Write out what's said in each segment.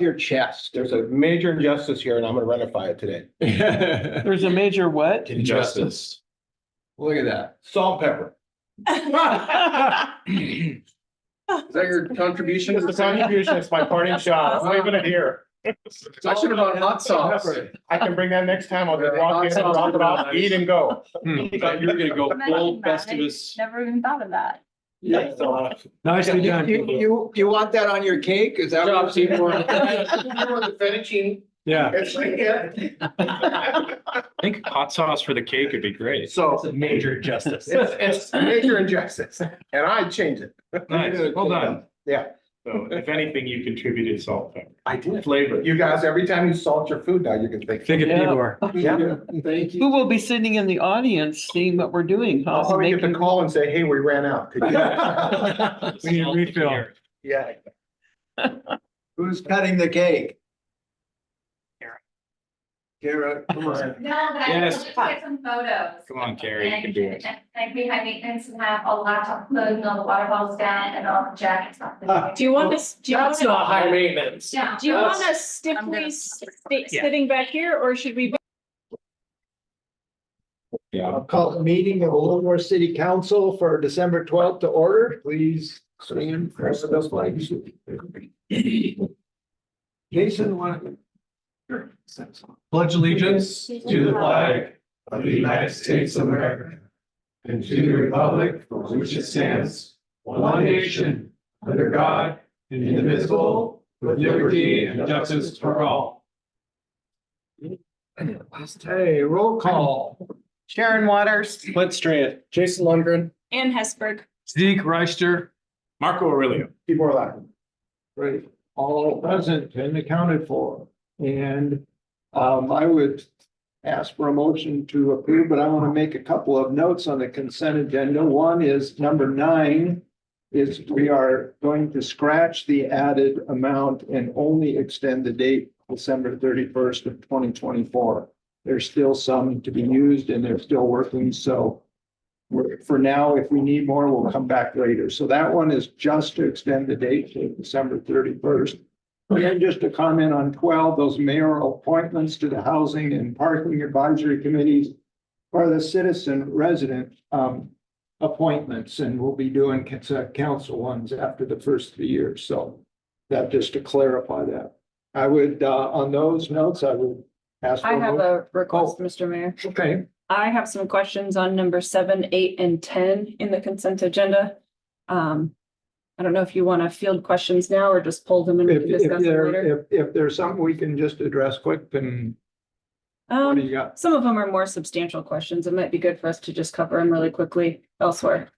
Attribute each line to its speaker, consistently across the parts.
Speaker 1: your chest. There's a major injustice here and I'm gonna rectify it today.
Speaker 2: There's a major what?
Speaker 1: Injustice. Look at that. Salt and pepper.
Speaker 3: Is that your contribution?
Speaker 1: It's the contribution. It's my parting shot. I'm leaving it here.
Speaker 3: I should have bought hot sauce.
Speaker 1: I can bring that next time. I'll just walk in, drop it off, eat and go.
Speaker 4: Thought you were gonna go full
Speaker 5: Imagine that.
Speaker 4: Festivus.
Speaker 5: Never even thought of that.
Speaker 1: Yeah.
Speaker 2: Nicely
Speaker 6: You, you, you want that on your cake? Is that? what you-
Speaker 3: Fettuccine.
Speaker 2: Yeah.
Speaker 3: It's like, yeah.
Speaker 4: I think hot sauce for the cake would be great.
Speaker 1: So
Speaker 2: Major injustice.
Speaker 1: it's, it's major injustice and I change it.
Speaker 4: Nice, well done.
Speaker 1: Yeah.
Speaker 4: So if anything, you contributed salt and pepper.
Speaker 1: I did.
Speaker 4: flavor.
Speaker 1: You guys, every time you salt your food now, you can think.
Speaker 2: Think of
Speaker 6: Yeah.
Speaker 2: Igor.
Speaker 1: Yeah.
Speaker 6: Thank you.
Speaker 2: Who will be sitting in the audience seeing what we're doing?
Speaker 1: I'll
Speaker 2: How's it
Speaker 1: probably Oh, get the
Speaker 2: making-
Speaker 1: call and say, hey, we ran out. Could
Speaker 2: We
Speaker 1: you-
Speaker 2: need a refill.
Speaker 1: Yeah.
Speaker 6: Who's cutting the cake? Kara, come on.
Speaker 5: No, but I
Speaker 4: Yes.
Speaker 5: just get some photos.
Speaker 4: Come on, Carrie, you can
Speaker 5: And
Speaker 4: do it.
Speaker 5: Like we had maintenance and have a laptop loading all the water bottles down and all the jackets off.
Speaker 4: Ah.
Speaker 7: Do you want us, do you want,
Speaker 3: maintenance.
Speaker 5: Yeah.
Speaker 7: do you want
Speaker 3: That's-
Speaker 7: us
Speaker 5: I'm gonna-
Speaker 7: stiffly sti- sitting back here or should we?
Speaker 4: Yeah.
Speaker 6: I'll call the meeting of Livermore City Council for December twelfth to order. Please stand for those flags. Jason, want?
Speaker 8: Pledge allegiance to the flag of the United States of America and to the republic for which it stands, one nation, under God, indivisible, with liberty and justice for all.
Speaker 6: Hey, roll call.
Speaker 2: Sharon Waters.
Speaker 4: Clint Strand.
Speaker 3: Jason Lundgren.
Speaker 7: Ann Hesberg.
Speaker 2: Zeke Reister.
Speaker 4: Marco Aurelio.
Speaker 1: Keep more laughing.
Speaker 6: Right, all present and accounted for. And um, I would ask for a motion to approve, but I want to make a couple of notes on the consent agenda. One is number nine is we are going to scratch the added amount and only extend the date December thirty-first of twenty twenty-four. There's still some to be used and they're still working, so we're, for now, if we need more, we'll come back later. So that one is just to extend the date to December thirty-first. And just to comment on twelve, those mayoral appointments to the Housing and Parking Advisory Committees are the citizen resident um appointments, and we'll be doing cons- uh, council ones after the first three years, so that just to clarify that. I would, uh, on those notes, I would ask. for
Speaker 7: I have
Speaker 6: vote.
Speaker 7: a request, Mr. Mayor.
Speaker 6: Uh-huh. Oh, Okay,
Speaker 7: I have some questions on number seven, eight, and ten in the consent agenda. Um, I don't know if you want to field questions now or just pull them and we
Speaker 6: if
Speaker 7: can
Speaker 6: if
Speaker 7: discuss them later.
Speaker 6: there, if if there's something we can just address quick, then what do
Speaker 7: Um,
Speaker 6: you got?
Speaker 7: some of them are more substantial questions. It might be good for us to just cover them really quickly elsewhere.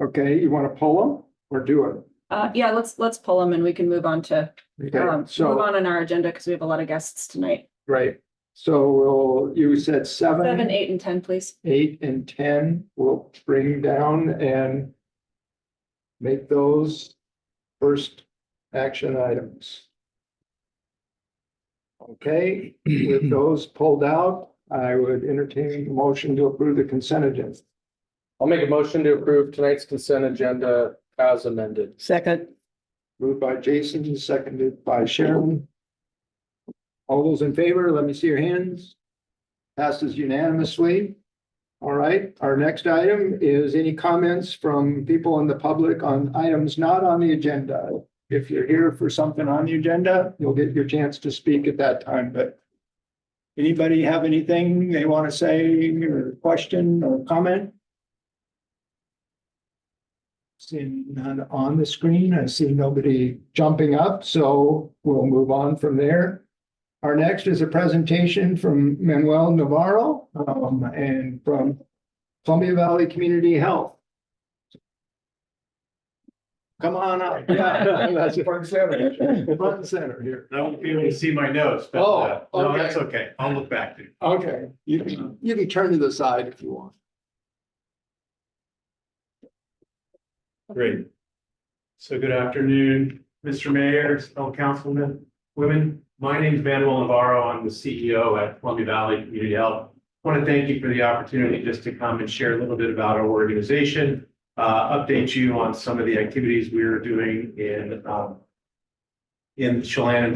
Speaker 6: Okay, you want to pull them or do
Speaker 7: Uh, yeah, let's, let's pull them and we can move on to,
Speaker 6: it?
Speaker 7: um,
Speaker 6: Okay,
Speaker 7: move
Speaker 6: so,
Speaker 7: on in our agenda because we have a lot of guests tonight.
Speaker 6: right, so we'll, you said
Speaker 7: Seven,
Speaker 6: seven,
Speaker 7: eight, and ten, please.
Speaker 6: eight and ten, we'll bring down and make those first action items. Okay, with those pulled out, I would entertain a motion to approve the consent agenda.
Speaker 3: I'll make a motion to approve tonight's consent agenda as amended.
Speaker 2: Second.
Speaker 6: Moved by Jason, and seconded by Sharon. All those in favor, let me see your hands. Passes unanimously. All right, our next item is any comments from people in the public on items not on the agenda. If you're here for something on the agenda, you'll get your chance to speak at that time, but anybody have anything they want to say or question or comment? Seeing none on the screen, I see nobody jumping up, so we'll move on from there. Our next is a presentation from Manuel Navarro um, and from Columbia Valley Community Health. Come on up. Yeah, that's it.
Speaker 1: Front center.
Speaker 6: Front and center here.
Speaker 8: I won't be able to see my notes,
Speaker 6: but, uh, Oh, no, okay. that's
Speaker 8: okay. I'll look back to you.
Speaker 6: Okay, you can, you can turn to the side if you want.
Speaker 8: Great. So good afternoon, Mr. Mayor, fellow councilmen, women. My name is Manuel Navarro. I'm the CEO at Columbia Valley Community Health. Want to thank you for the opportunity just to come and share a little bit about our organization, uh, update you on some of the activities we are doing in, um,
Speaker 6: in Chelan and